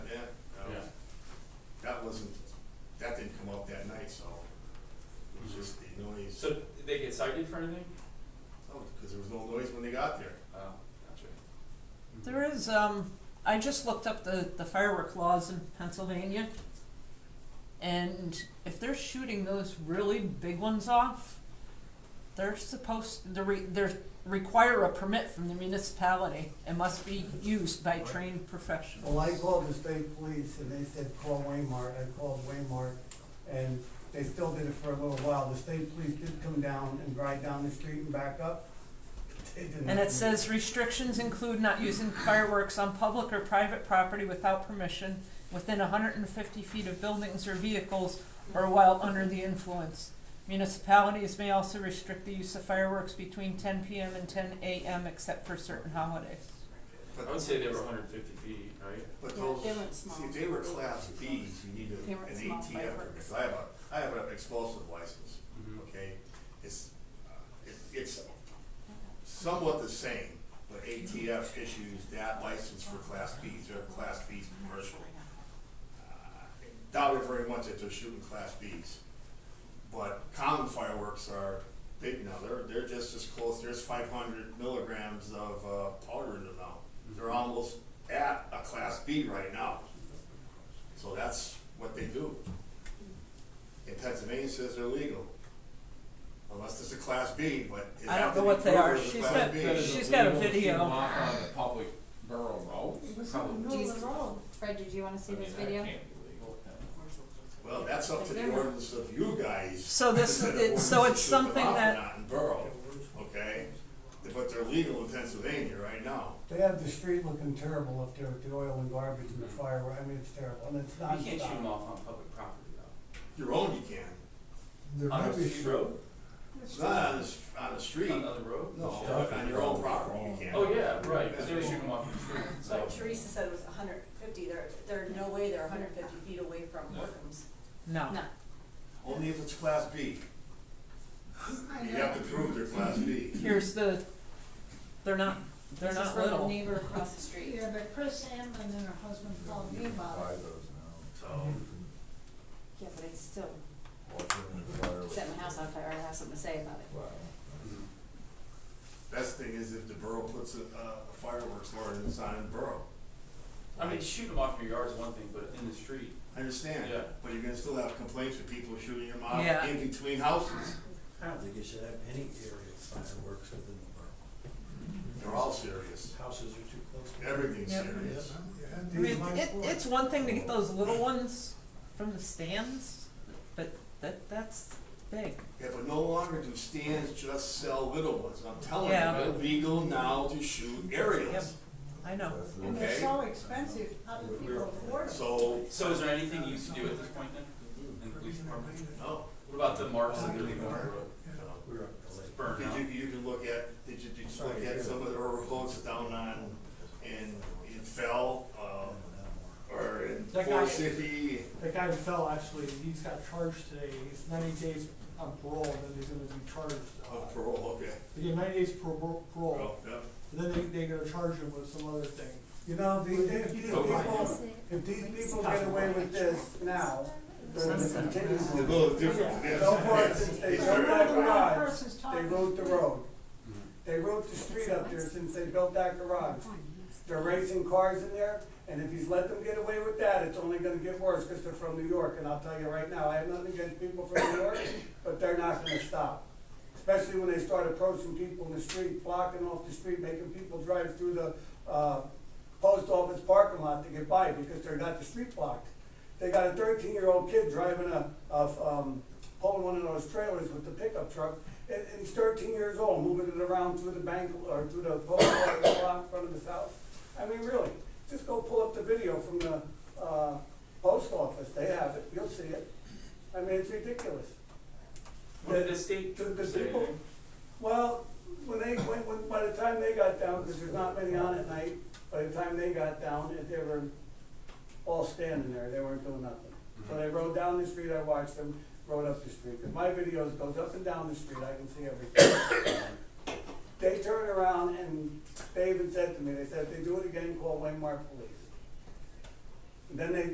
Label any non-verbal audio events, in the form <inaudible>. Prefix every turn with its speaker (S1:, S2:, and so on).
S1: days.
S2: So did they get cited for anything?
S1: Oh, because there was no noise when they got there.
S2: Oh, gotcha.
S3: There is, um, I just looked up the, the firework laws in Pennsylvania. And if they're shooting those really big ones off, they're supposed, they're, re- they're require a permit from the municipality and must be used by trained professionals.
S4: Well, I called the state police and they said, call Waymart, I called Waymart, and they still did it for a little while, the state police did come down and ride down the street and back up. They did
S3: And
S4: not-
S3: it says restrictions include not using fireworks on public or private property without permission, within hundred and fifty feet of buildings or vehicles, or while under the influence. Municipalities may also restrict the use of fireworks between ten PM and ten AM except for certain holidays.
S1: But-
S2: I would say they were hundred and fifty feet, right?
S1: But
S5: Yeah,
S1: those,
S5: they weren't
S1: see,
S5: small.
S1: if they were class Bs, you need
S5: They
S1: a,
S5: weren't
S1: an
S5: small
S1: ATF permit,
S5: fireworks.
S1: 'cause I have a, I have an explosive license,
S2: Mhm.
S1: okay? It's, uh, it, it's somewhat the same, but ATF issues that license for class Bs, they're class Bs commercial. Uh, I Doubt it very much that they're shooting class Bs. But common fireworks are big now, they're, they're just as close, there's five hundred milligrams of, uh, powder in them now. They're almost at a class B right now. So that's what they do. In Pennsylvania says they're legal. Unless it's a class B, but it
S3: I
S1: have
S3: don't
S1: to
S3: know
S1: be
S3: what
S1: proven
S3: they are.
S1: as a
S3: She's
S1: class
S3: got-
S1: B.
S6: That is
S3: she's got a
S6: illegal to
S3: video.
S6: shoot off on a public borough road? Probably.
S5: Jesus. Fred, did you wanna see
S6: I mean,
S5: this
S6: that
S5: video?
S6: can't be legal.
S1: Well, that's up to the ordinance of you guys.
S3: So
S1: <laughs>
S3: this-
S1: Whether the
S3: it- so
S1: ordinance
S3: it's
S1: should go
S3: something
S1: off or
S3: that-
S1: Not in borough, okay? But they're legal in Pennsylvania right now.
S4: They have the street looking terrible up there with the oil and garbage and the fireworks, I mean, it's terrible, and it's
S2: You can't shoot them
S4: nonstop.
S2: off on public property though.
S1: Your own you can.
S4: They're
S2: On a
S4: rubbish.
S2: street road?
S1: It's not on the, s- on the street.
S2: On another road?
S1: No, but on your own property you can.
S2: Oh, yeah, right, cause they were shooting them off on the street, so.
S7: But Teresa said it was hundred fifty, there, there, no way they're hundred fifty feet away from
S6: No.
S7: Workham's.
S3: No.
S5: No.
S1: Only if it's class B. You have to prove they're class B.
S3: Here's the, they're not, they're
S7: This is
S3: not
S7: from the
S3: little.
S7: neighbor across the street.
S8: Yeah, but Chris Amman and her husband called me about it.
S1: So,
S5: Yeah, but it's still, set
S9: Set
S5: my house on fire, I have something to say about it.
S2: Mhm.
S1: best thing is if the borough puts a, a fireworks ordinance on in borough.
S2: I mean, shooting them off in your yard is one thing, but in the street,
S1: I understand,
S2: Yeah.
S1: but you're gonna still have complaints with people shooting them off
S3: Yeah.
S1: in between houses.
S9: I don't think you should have any area fireworks within the borough.
S1: They're all serious.
S9: Houses are too close. to-
S1: Everything's
S3: Yep.
S1: serious.
S3: I mean, it, it's one thing to get those little ones from the stands, but that, that's big.
S1: Yeah, but no longer do stands just sell little ones. I'm telling you,
S3: Yeah.
S1: they're legal now to shoot aerials.
S3: I know.
S8: And they're so expensive, how do people afford it?
S1: So,
S2: so is there anything you can do at this point then, in the police department?
S1: no,
S2: What about the marks that they're leaving on the road?
S1: no.
S9: We We're up to late.
S2: It's burned out.
S1: Did you, you can look at, did you, did you look at some of the roads down on, in, in Fell, uh, or in
S10: That guy-
S1: Forest City?
S10: That guy who fell, actually, he's got charged today, he's ninety days on parole, and then he's gonna be charged. uh,
S1: Oh, parole, okay.
S10: They give ninety days parole, parole,
S1: Well, yep.
S10: and then they, they're gonna charge him with some other thing.
S4: You know, these, these
S2: Oh,
S4: people, if these people get away with this now, they're gonna continue
S1: It's a
S4: with it.
S1: little different. than this.
S4: So far, since they
S1: <laughs> It's
S4: don't
S1: very
S4: know the
S1: bad.
S4: garage,
S8: Person's
S4: they
S8: talking.
S4: wrote the road.
S2: Mhm.
S4: They wrote the street up there since they built that garage. They're racing cars in there, and if he's let them get away with that, it's only gonna get worse, because they're from New York, and I'll tell you right now, I have nothing against people from New York, but they're not gonna stop. Especially when they start approaching people in the street, blocking off the street, making people drive through the, uh, post office parking lot to get by, because they're not the street blocked. They got a thirteen-year-old kid driving a, of, um, pulling one of those trailers with the pickup truck, and, and he's thirteen years old, moving it around through the bank, or through the post office lot in front of his house. I mean, really, just go pull up the video from the, uh, post office, they have it, you'll see it. I mean, it's ridiculous.
S2: What did
S4: The-
S2: the state
S4: the- the
S2: say?
S4: people- well, when they, when, when, by the time they got down, because there's not many on at night, by the time they got down, they were all standing there, they weren't doing nothing. So they rode down the street, I watched them, rode up the street, 'Cause my videos goes up and down the street, I can see everything. They turned around and they even said to me, they said, if they do it again, call Waymark Police. And Then they